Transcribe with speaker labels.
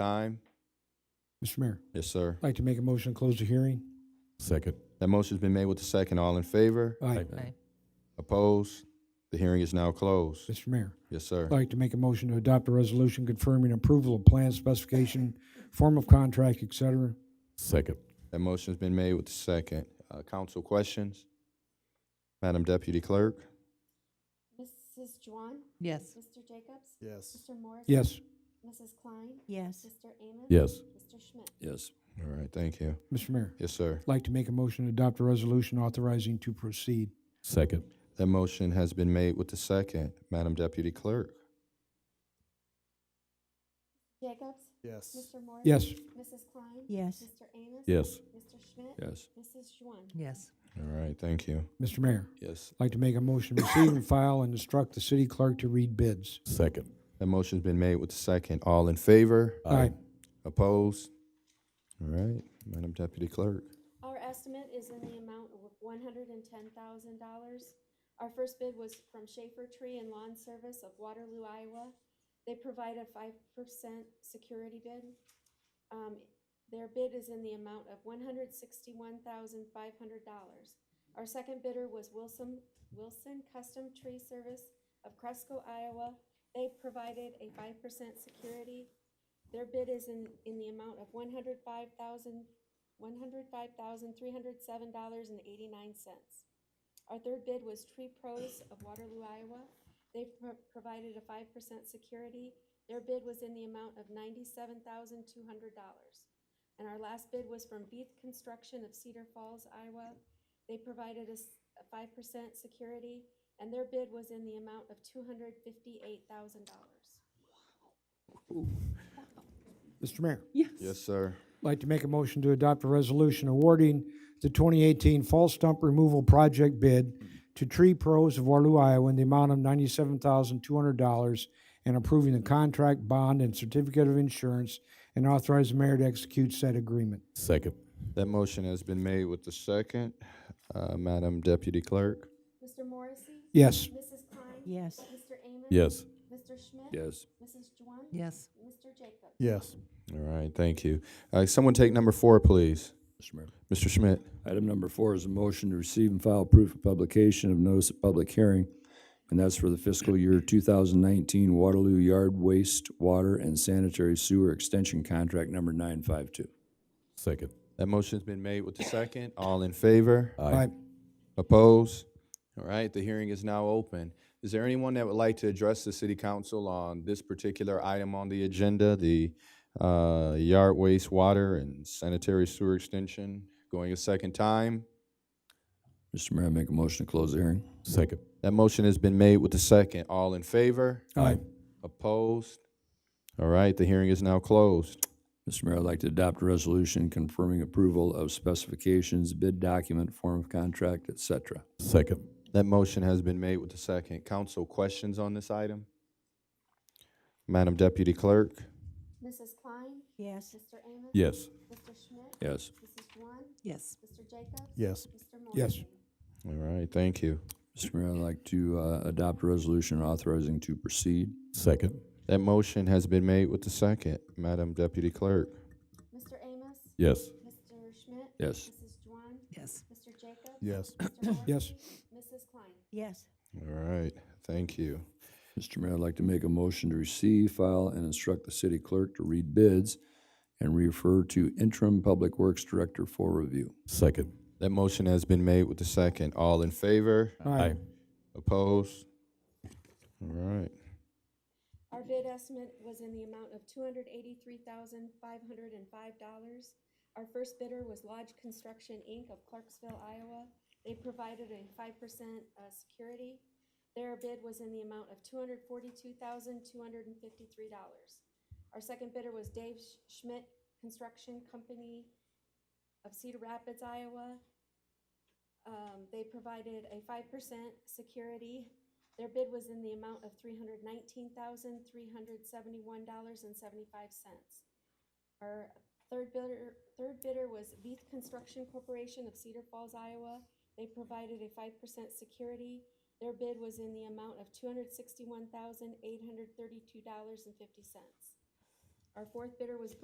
Speaker 1: Time.
Speaker 2: Mr. Mayor,
Speaker 1: Yes, sir.
Speaker 2: I'd like to make a motion to close the hearing.
Speaker 3: Second.
Speaker 1: That motion's been made with the second. All in favor?
Speaker 2: Aye.
Speaker 4: Aye.
Speaker 1: Opposed? The hearing is now closed.
Speaker 2: Mr. Mayor,
Speaker 1: Yes, sir.
Speaker 2: I'd like to make a motion to adopt a resolution confirming approval of plan specification, form of contract, et cetera.
Speaker 3: Second.
Speaker 1: That motion's been made with the second. Uh, council questions? Madam Deputy Clerk?
Speaker 5: Mrs. Juwan?
Speaker 4: Yes.
Speaker 5: Mr. Jacobs?
Speaker 6: Yes.
Speaker 5: Mr. Morris?
Speaker 2: Yes,
Speaker 5: Mrs. Klein?
Speaker 4: Yes.
Speaker 5: Mr. Amos?
Speaker 3: Yes.
Speaker 5: Mr. Schmidt?
Speaker 1: Yes. All right, thank you.
Speaker 2: Mr. Mayor,
Speaker 1: Yes, sir.
Speaker 2: I'd like to make a motion to adopt a resolution authorizing to proceed.
Speaker 3: Second.
Speaker 1: That motion has been made with the second. Madam Deputy Clerk?
Speaker 5: Jacobs?
Speaker 6: Yes.
Speaker 5: Mr. Morris?
Speaker 2: Yes,
Speaker 5: Mrs. Klein?
Speaker 4: Yes.
Speaker 5: Mr. Amos?
Speaker 3: Yes.
Speaker 5: Mr. Schmidt?
Speaker 1: Yes.
Speaker 5: Mrs. Juwan?
Speaker 4: Yes.
Speaker 1: All right, thank you.
Speaker 2: Mr. Mayor,
Speaker 1: Yes.
Speaker 2: I'd like to make a motion to receive and file and instruct the city clerk to read bids.
Speaker 3: Second.
Speaker 1: That motion's been made with the second. All in favor?
Speaker 2: Aye.
Speaker 1: Opposed? All right, Madam Deputy Clerk?
Speaker 5: Our estimate is in the amount of one hundred and ten thousand dollars. Our first bid was from Schaefer Tree and Lawn Service of Waterloo, Iowa. They provide a five percent security bid. Um, their bid is in the amount of one hundred sixty-one thousand five hundred dollars. Our second bidder was Wilson, Wilson Custom Tree Service of Cresco, Iowa. They provided a five percent security. Their bid is in, in the amount of one hundred five thousand one hundred five thousand three hundred seven dollars and eighty-nine cents. Our third bid was Tree Pros of Waterloo, Iowa. They pro- provided a five percent security. Their bid was in the amount of ninety-seven thousand two hundred dollars. And our last bid was from Beath Construction of Cedar Falls, Iowa. They provided us a five percent security, and their bid was in the amount of two hundred fifty-eight thousand dollars.
Speaker 2: Mr. Mayor,
Speaker 1: Yes, sir.
Speaker 2: I'd like to make a motion to adopt a resolution awarding the 2018 Fall Stump Removal Project bid to Tree Pros of Waterloo, Iowa in the amount of $97,200 and approving the contract, bond, and certificate of insurance and authorize the mayor to execute said agreement.
Speaker 3: Second.
Speaker 1: That motion has been made with the second. Uh, Madam Deputy Clerk?
Speaker 5: Mr. Morrissey?
Speaker 2: Yes.
Speaker 5: Mrs. Klein?
Speaker 4: Yes.
Speaker 5: Mr. Amos?
Speaker 3: Yes.
Speaker 5: Mr. Schmidt?
Speaker 1: Yes.
Speaker 5: Mrs. Juwan?
Speaker 4: Yes.
Speaker 5: Mr. Jacobs?
Speaker 6: Yes.
Speaker 1: All right, thank you. Uh, someone take number four, please.
Speaker 7: Mr. Mayor.
Speaker 1: Mr. Schmidt.
Speaker 7: Item number four is a motion to receive and file proof of publication of notice of public hearing, and that's for the fiscal year 2019 Waterloo Yard Waste Water and Sanitary Sewer Extension Contract Number 952.
Speaker 3: Second.
Speaker 1: That motion's been made with the second. All in favor?
Speaker 3: Aye.
Speaker 1: Opposed? All right, the hearing is now open. Is there anyone that would like to address the city council on this particular item on the agenda, the uh, yard waste water and sanitary sewer extension going a second time?
Speaker 7: Mr. Mayor, I make a motion to close the hearing.
Speaker 3: Second.
Speaker 1: That motion has been made with the second. All in favor?
Speaker 3: Aye.
Speaker 1: Opposed? All right, the hearing is now closed.
Speaker 7: Mr. Mayor, I'd like to adopt a resolution confirming approval of specifications, bid document, form of contract, et cetera.
Speaker 3: Second.
Speaker 1: That motion has been made with the second. Council questions on this item? Madam Deputy Clerk?
Speaker 5: Mrs. Klein?
Speaker 4: Yes.
Speaker 5: Mr. Amos?
Speaker 3: Yes.
Speaker 5: Mr. Schmidt?
Speaker 7: Yes.
Speaker 5: Mrs. Juwan?
Speaker 4: Yes.
Speaker 5: Mr. Jacobs?
Speaker 6: Yes.
Speaker 5: Mr.
Speaker 2: Yes.
Speaker 5: Morrissey?
Speaker 1: All right, thank you.
Speaker 7: Mr. Mayor, I'd like to uh, adopt a resolution authorizing to proceed.
Speaker 3: Second.
Speaker 1: That motion has been made with the second. Madam Deputy Clerk?
Speaker 5: Mr. Amos?
Speaker 3: Yes.
Speaker 5: Mr. Schmidt?
Speaker 7: Yes.
Speaker 5: Mrs. Juwan?
Speaker 4: Yes.
Speaker 5: Mr. Jacobs?
Speaker 6: Yes.
Speaker 5: Mr. Morrissey?
Speaker 2: Yes.
Speaker 5: Mrs. Klein?
Speaker 4: Yes.
Speaker 1: All right, thank you.
Speaker 7: Mr. Mayor, I'd like to make a motion to receive, file, and instruct the city clerk to read bids and refer to interim Public Works Director for review.
Speaker 3: Second.
Speaker 1: That motion has been made with the second. All in favor?
Speaker 2: Aye.
Speaker 1: Opposed? All right.
Speaker 5: Our bid estimate was in the amount of two hundred eighty-three thousand, five hundred and five dollars. Our first bidder was Lodge Construction, Inc. of Clarksville, Iowa. They provided a five percent, uh, security. Their bid was in the amount of two hundred forty-two thousand, two hundred and fifty-three dollars. Our second bidder was Dave Sch- Schmidt Construction Company of Cedar Rapids, Iowa. Um, they provided a five percent security. Their bid was in the amount of three hundred nineteen thousand, three hundred seventy-one dollars and seventy-five cents. Our third bidder, third bidder was Beath Construction Corporation of Cedar Falls, Iowa. They provided a five percent security. Their bid was in the amount of two hundred sixty-one thousand, eight hundred thirty-two dollars and fifty cents. Our fourth bidder was